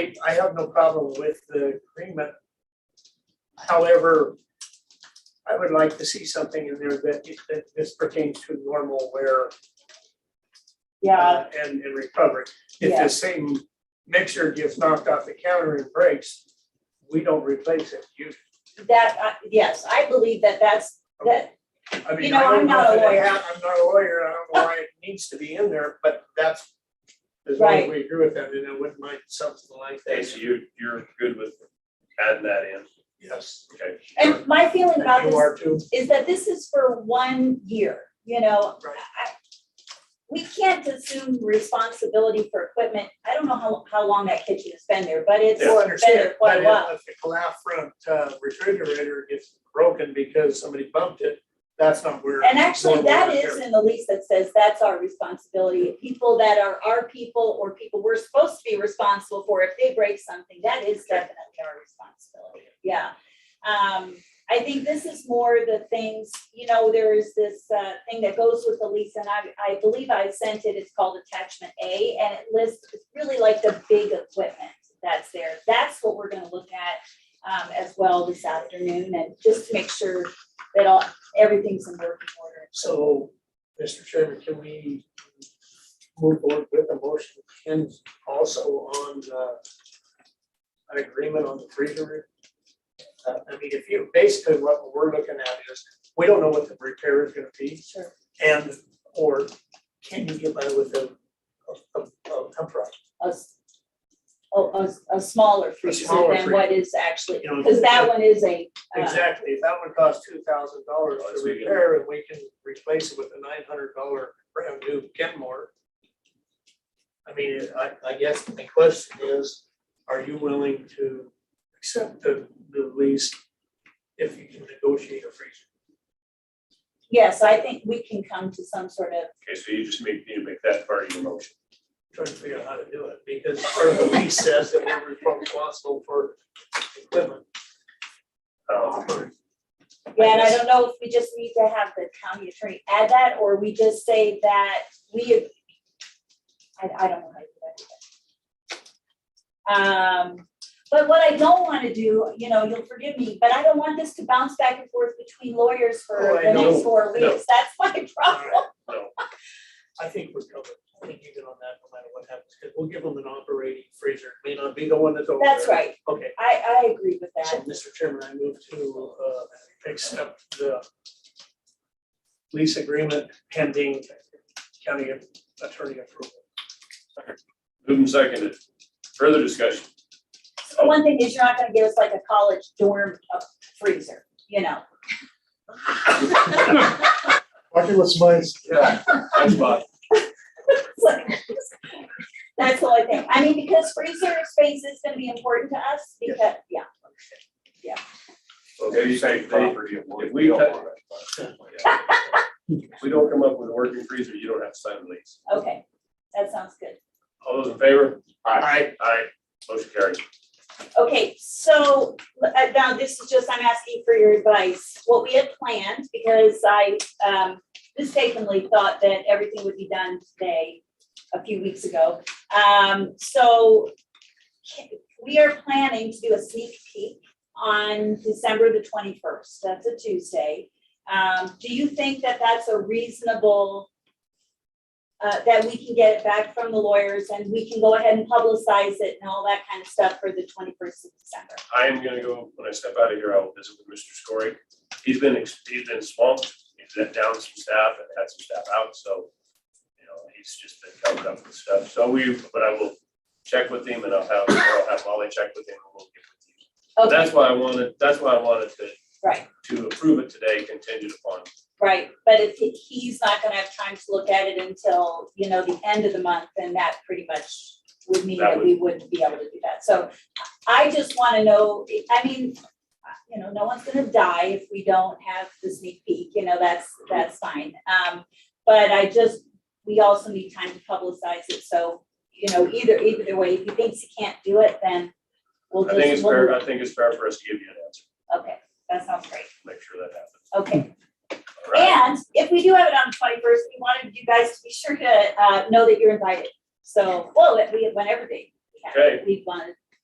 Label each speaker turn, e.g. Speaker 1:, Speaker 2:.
Speaker 1: I- I have no problem with the agreement. However, I would like to see something in there that, that this pertains to normal wear
Speaker 2: Yeah,
Speaker 1: uh, and, and recovery. If
Speaker 2: Yeah.
Speaker 1: the same mixer gets knocked off the counter and breaks, we don't replace it. You,
Speaker 2: that, uh, yes, I believe that that's, that,
Speaker 1: I mean,
Speaker 2: You know,
Speaker 1: I don't
Speaker 2: I'm
Speaker 1: know
Speaker 2: not a
Speaker 1: if it-
Speaker 2: lawyer.
Speaker 1: I'm not a lawyer, I don't know why it needs to be in there, but that's, as long as
Speaker 2: Right.
Speaker 1: we agree with that, then I wouldn't mind something like
Speaker 3: Okay,
Speaker 1: that.
Speaker 3: so you, you're good with adding that in,
Speaker 1: Yes.
Speaker 3: okay?
Speaker 2: and my feeling
Speaker 1: And
Speaker 2: about
Speaker 1: you
Speaker 2: this
Speaker 1: are too?
Speaker 2: is that this is for one year, you know?
Speaker 1: Right.
Speaker 2: I- We can't assume responsibility for equipment. I don't know how, how long that kitchen has been there, but it's
Speaker 1: Yeah, I
Speaker 2: been
Speaker 1: understand,
Speaker 2: there quite
Speaker 1: but
Speaker 2: a while.
Speaker 1: if if the glass front uh, refrigerator gets broken because somebody bumped it, that's not where.
Speaker 2: And actually,
Speaker 1: normal
Speaker 2: that
Speaker 1: repair-
Speaker 2: is in the lease that says that's our responsibility. People that are our people or people we're supposed to be responsible for, if they break something, that is definitely our responsibility. Yeah. Um, I think this is more the things, you know, there is this, uh, thing that goes with the lease and I, I believe I sent it. It's called attachment A and it lists, it's really like the big equipment that's there. That's what we're gonna look at um, as well this afternoon and just to make sure that all, everything's in working order.
Speaker 1: So, Mr. Chairman, can we move forward with a motion and also on uh, an agreement on the freezer? Uh, I mean, if you, basically what we're looking at is, we don't know what the repair is gonna be.
Speaker 2: Sure.
Speaker 1: And, or can you get by with a, a, a, a temp truck?
Speaker 2: A, s- a- a- a smaller freezer
Speaker 1: smaller
Speaker 2: than what is actually,
Speaker 1: You know,
Speaker 2: because that one is a, uh,
Speaker 1: Exactly, if that would cost two thousand dollars
Speaker 3: That's
Speaker 1: to
Speaker 3: what you-
Speaker 1: repair, and we can replace it with a nine hundred dollar brand new Kenmore. I mean, I, I guess my question is, are you willing to accept the, the lease if you can negotiate a freezer?
Speaker 2: yes, I think we can come to some sort of,
Speaker 3: Okay, so you just make, need to make that part of your motion.
Speaker 1: Trying to figure out how to do it, because part of the lease says that we're responsible for equipment.
Speaker 3: Um,
Speaker 2: yeah, and I
Speaker 1: guess-
Speaker 2: don't know if we just need to have the county attorney add that, or we just say that we, I, I don't know how to do that. Um, but what I don't want to do, you know, you'll forgive me, but I don't want this to bounce back and forth between lawyers
Speaker 1: Oh,
Speaker 2: for
Speaker 1: I
Speaker 2: the next
Speaker 1: know.
Speaker 2: four
Speaker 3: No.
Speaker 2: weeks. That's my problem.
Speaker 3: No.
Speaker 1: I think we're covered, I think you get on that no matter what happens, because we'll give them an operating freezer, It may not be the one that's over there.
Speaker 2: That's right.
Speaker 1: Okay,
Speaker 2: I, I agree with
Speaker 1: So,
Speaker 2: that.
Speaker 1: Mr. Chairman, I move to uh, accept the lease agreement pending county attorney approval.
Speaker 3: Moved and seconded, further discussion,
Speaker 2: So one thing is you're not gonna give us like a college dorm uh, freezer, you know?
Speaker 4: Market what's mine.
Speaker 3: that's fine,
Speaker 2: That's the only thing. I mean, because freezer space is gonna be important to us because, yeah.
Speaker 3: okay, you say, they- if we cut- if we don't come up with a working freezer, you don't have to sign the lease.
Speaker 2: Okay, that sounds good.
Speaker 3: All those in favor?
Speaker 1: Aye.
Speaker 3: Aye, motion carried.
Speaker 2: Okay, so uh, now this is just, I'm asking for your advice. What we had planned, because I um, mistakenly thought that everything would be done today, a few weeks ago. Um, So ca- we are planning to do a sneak peek on December the 21st. That's a Tuesday. Um, Do you think that that's a reasonable, uh, that we can get it back from the lawyers and we can go ahead and publicize it and all that kind of stuff for the twenty-first of December?
Speaker 3: I am gonna go, when I step out of here, I will visit with Mr. Scory. He's been, ex- he's been swamped, he's let down some staff and had some staff out, so, you know, he's just been covered up with stuff. So we, but I will check with him and I'll have, I'll have Molly check with him and we'll get with you.
Speaker 2: Okay,
Speaker 3: That's why I wanted, that's why I wanted to,
Speaker 2: Oh, right,
Speaker 3: to approve it today contingent upon,
Speaker 2: right, but if he- he's not gonna have time to look at it until, you know, the end of the month, then that pretty much would mean
Speaker 3: That
Speaker 2: that we wouldn't be able to do that. So I just wanna know, I mean, uh, you know, no one's gonna die if we don't have the sneak peek, you know, that's, that's fine. Um, but I just, we also need time to publicize it, so, you know, either, either way, if he thinks he can't do it, then we'll
Speaker 3: I
Speaker 2: just.
Speaker 3: think it's
Speaker 2: we'll-
Speaker 3: fair, I think it's fair for us to give you an answer,
Speaker 2: Okay, that sounds great,
Speaker 3: make sure that happens.
Speaker 2: okay.
Speaker 3: All right.
Speaker 2: And if we do have it on the twenty-first, we wanted you guys to be sure to, uh, know that you're invited. So, well, we, whenever they have, it, we wanted